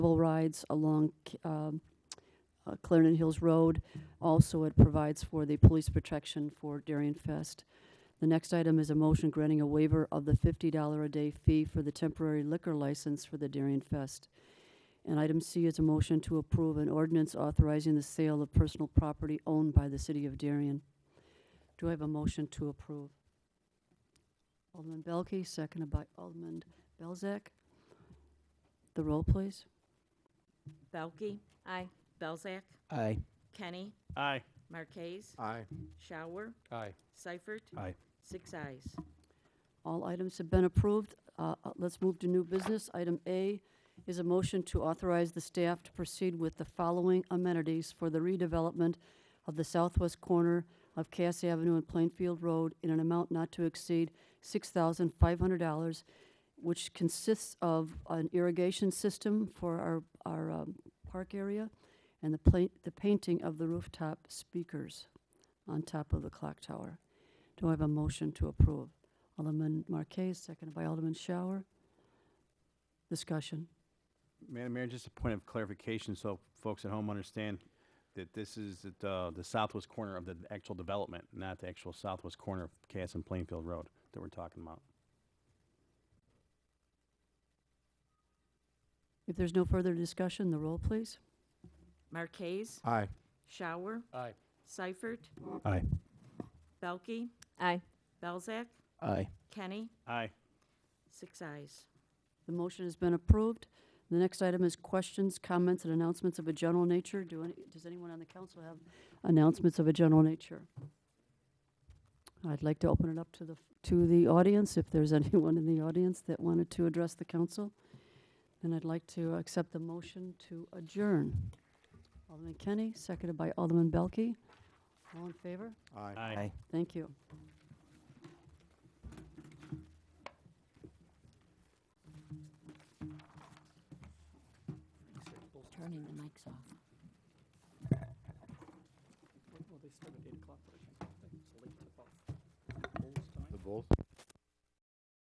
cable rides along um, uh, Clarendon Hills Road. Also, it provides for the police protection for Darien Fest. The next item is a motion granting a waiver of the $50 a day fee for the temporary liquor license for the Darien Fest. And item C is a motion to approve an ordinance authorizing the sale of personal property owned by the city of Darien. Do I have a motion to approve? Alderman Belke, seconded by Alderman Belzak. The roll, please. Belkey. Aye. Belzak. Aye. Kenny. Aye. Marquez. Aye. Shower. Aye. Seifert. Aye. Six eyes. All items have been approved. Uh, uh, Let's move to new business. Item A is a motion to authorize the staff to proceed with the following amenities for the redevelopment of the southwest corner of Cass Avenue and Plainfield Road in an amount not to exceed $6,500, which consists of an irrigation system for our, our um, park area and the pla- the painting of the rooftop speakers on top of the clock tower. Do I have a motion to approve? Alderman Marquez, seconded by Alderman Shower. Discussion. Madam Mayor, just a point of clarification, so folks at home understand that this is at, uh, the southwest corner of the actual development, not the actual southwest corner of Cass and Plainfield Road that we're talking about. If there's no further discussion, the roll, please. Marquez. Aye. Shower. Aye. Seifert. Aye. Belkey. Aye. Belzak. Aye. Kenny. Aye. Six eyes. The motion has been approved. The next item is questions, comments, and announcements of a general nature. Do any, does anyone on the council have announcements of a general nature? I'd like to open it up to the, to the audience, if there's anyone in the audience that wanted to address the council. Then I'd like to accept the motion to adjourn. Alderman Kenny, seconded by Alderman Belke. All in favor? Aye. Thank you. Turning the mics off. The Bulls?